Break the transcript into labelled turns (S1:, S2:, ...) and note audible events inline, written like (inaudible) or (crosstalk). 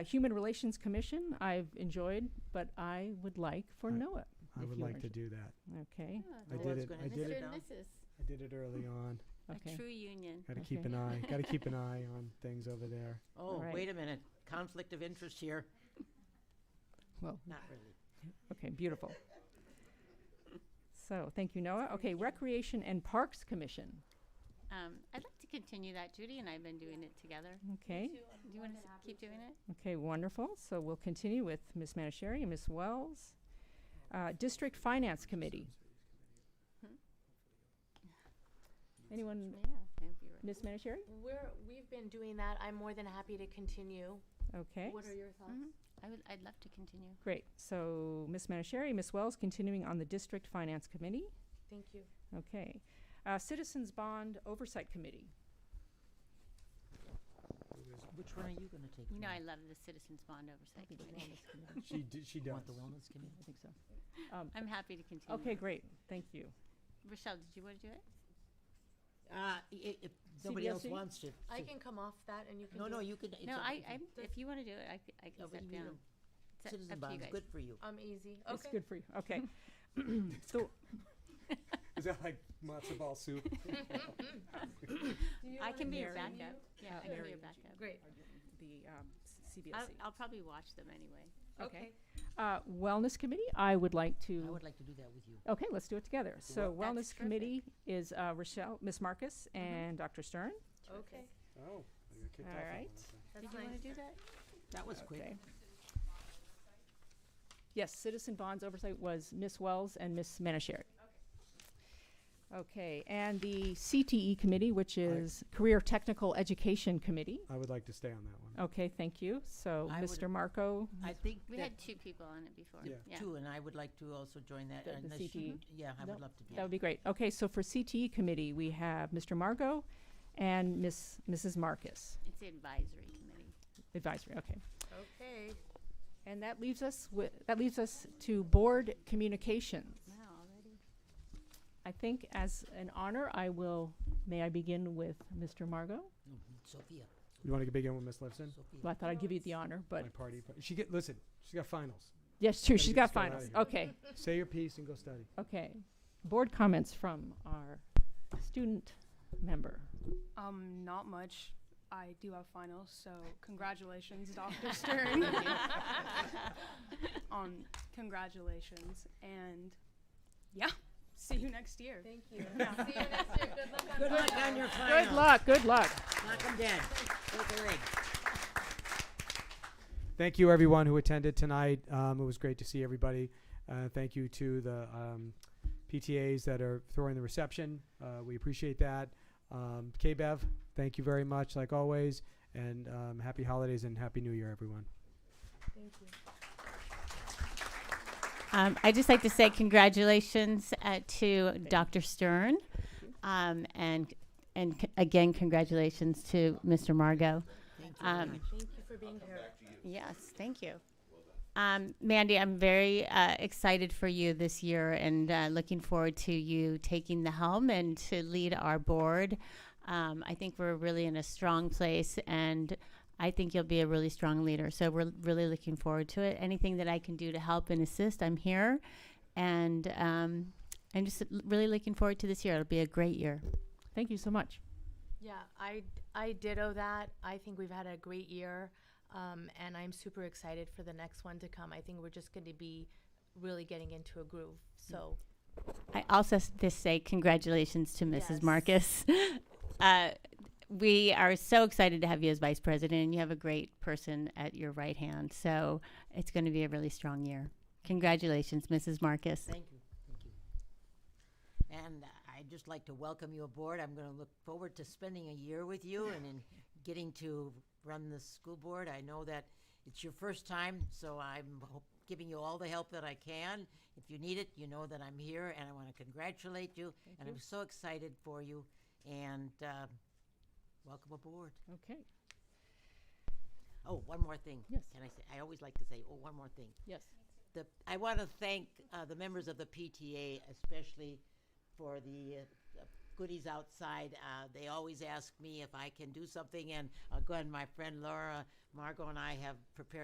S1: Human Relations Commission, I've enjoyed, but I would like for
S2: I-
S1: NOAA,
S2: I
S1: If
S2: would
S1: you
S2: like
S1: were
S2: to
S1: to-
S2: do that.
S1: okay?
S2: I did it- I did
S3: Mr.
S2: it-
S3: and Mrs.
S2: I did it early on.
S3: A
S1: Okay.
S3: true union.
S2: Got to keep
S1: Okay.
S2: an eye, got to
S1: (laughs)
S2: keep an eye on things over there.
S4: Oh,
S1: Right.
S4: wait a minute. Conflict of interest here.
S1: Well,
S4: Not really.
S1: okay, beautiful. So, thank you, Noah. Okay, Recreation and Parks Commission,
S3: Um, I'd like to continue that. Judy and I have been doing it together.
S2: Mm-hmm.
S1: okay?
S3: Do you want to keep doing it?
S1: Okay, wonderful. So we'll continue with Ms. Manishari and Ms. Wells. Uh, District Finance Committee.
S2: Hmm? Mm-hmm.
S3: Yeah,
S1: Anyone,
S3: I hope you're right.
S1: Ms. Manishari?
S5: We're, we've been doing that. I'm more than happy to continue.
S1: Okay,
S5: What are your thoughts?
S3: Mhm.
S2: Mm-hmm.
S3: I would, I'd love to continue.
S1: great. So Ms. Manishari, Ms. Wells, continuing on the District Finance Committee.
S5: Thank you.
S1: Okay. Uh, Citizens Bond Oversight Committee.
S4: Which one are you going to take?
S3: You know, I
S4: tonight?
S3: love the Citizens Bond Oversight Committee.
S2: She, d- she
S4: You
S2: does.
S4: want the wellness committee?
S1: (laughs) I think so.
S3: I'm happy to continue.
S1: Okay, great. Thank you.
S3: Rochelle, did you want to do it?
S4: Uh, i- if nobody else
S1: CBSE?
S4: wants to.
S5: I
S4: so-
S5: can come off that and you can
S4: E? No,
S5: do
S4: no,
S5: it.
S4: you could. it's
S3: No,
S4: up-
S3: I,
S4: it's
S3: I,
S4: up-
S3: if you want to do it, I, c- I
S4: yeah,
S3: can
S4: but you
S3: step
S4: need
S3: down.
S4: a
S3: It's up-
S4: Citizen
S3: up to you
S4: bonds,
S3: guys.
S4: good for you.
S5: I'm easy.
S1: It's
S5: Okay.
S1: good for you. Okay. So,
S2: Is that like matzo ball
S1: (laughs)
S2: soup?
S3: I can be your
S1: marry
S3: backup.
S2: Oh,
S3: Yeah, I can be your backup.
S5: Great.
S1: the um, C-
S3: I'll,
S1: CBSC.
S3: I'll probably watch them anyway.
S1: Okay. Uh, Wellness Committee, I would like
S4: I
S1: to,
S4: would like to do that with you.
S1: okay, let's do it together. So
S3: Well, that's
S1: Wellness Committee is uh, Rochelle, Ms. Marcus, and Dr. Stern.
S5: Okay.
S2: Oh, I got kicked
S1: All
S2: off that one,
S1: right.
S2: okay.
S3: Did
S5: That's
S3: you want to
S5: nice.
S3: do that?
S4: That was quick.
S1: Okay. Yes, Citizen Bonds Oversight was Ms. Wells and Ms. Manishari. Okay, and the CTE Committee, which is Career Technical Education Committee.
S2: I would like to stay on that one.
S1: Okay, thank you. So
S4: I would-
S1: Mr. Marco,
S4: I think
S3: We
S4: that
S3: had two people on it before.
S2: Yeah.
S4: two, and I would like to also join that.
S1: The- the
S4: unless
S1: CTE?
S4: you- Yeah, I
S1: Nope.
S4: would love to do
S1: that would
S4: that.
S1: be great. Okay, so for CTE Committee, we have Mr. Marco and Ms., Mrs. Marcus,
S3: It's the advisory committee.
S1: advisory, okay.
S5: Okay.
S1: And that leaves us with, that leaves us to Board Communications.
S3: Wow, already?
S1: I think as an honor, I will, may I begin with Mr. Margot?
S4: Mhm. Sophia,
S2: You want to begin with Miss Lifson?
S1: Well, I
S4: Sophia.
S1: thought I'd give you the honor,
S2: My
S1: but,
S2: party, par- she get, listen, she's
S1: (laughs)
S2: got finals.
S1: yes, true,
S2: Gotta
S1: she's
S2: get
S1: got
S2: this girl outta
S1: finals.
S2: here.
S1: Okay,
S2: Say your piece and go study.
S1: okay. Board comments from our student member.
S6: Um, not much. I do have finals, so congratulations, Dr.
S5: (laughs)
S6: Stern. (laughs) um, congratulations, and yeah, see you next year.
S5: Thank you. See you next year. Good luck on
S4: Good luck
S5: finals.
S4: on your finals.
S1: Good luck, good luck.
S4: Knock 'em dead. Break a leg.
S2: Thank you, everyone who attended tonight. Um, it was great to see everybody. Uh, thank you to the um, PTAs that are throwing the reception. Uh, we appreciate that. Um, KBEV, thank you very much, like always. And um, happy holidays and happy new year, everyone.
S5: Thank you.
S3: Um, I'd just like to say congratulations uh, to Dr. Stern, um, and and c- again congratulations to Mr. Margot.
S4: Thank you.
S3: Um,
S5: Thank you for being here.
S3: Yes, thank you. Um, Mandy, I'm very uh, excited for you this year and uh, looking forward to you taking the helm and to lead our board. Um, I think we're really in a strong place and I think you'll be a really strong leader. So we're really looking forward to it. Anything that I can do to help and assist, I'm here. And um, I'm just l- really looking forward to this year. It'll be a great year.
S1: Thank you so much.
S5: Yeah, I, I ditto that. I think we've had a great year, um, and I'm super excited for the next one to come. I think we're just going to be really getting into a groove. So
S3: I also s- just say congratulations to Mrs.
S5: Yes.
S3: Marcus. (laughs) Uh, we are so excited to have you as vice president, and you have a great person at your right hand. So it's going to be a really strong year. Congratulations, Mrs. Marcus.
S4: Thank you, thank you. And I'd just like to welcome you aboard. I'm going to look forward to spending a year with you and in getting to run the school board. I know that it's your first time, so I'm ho- giving you all the help that I can. If you need it, you know that I'm here, and I want to congratulate you. And I'm so excited for you, and uh, welcome aboard.
S1: Okay,
S4: Oh, one more thing.
S1: Yes.
S4: Can I say, I always like to say, oh, one more thing.
S1: yes.
S4: the, I want to thank uh, the members of the PTA especially for the uh, uh, goodies outside. Uh, they always ask me if I can do something, and uh, go ahead. My friend Laura Margot and I have prepared.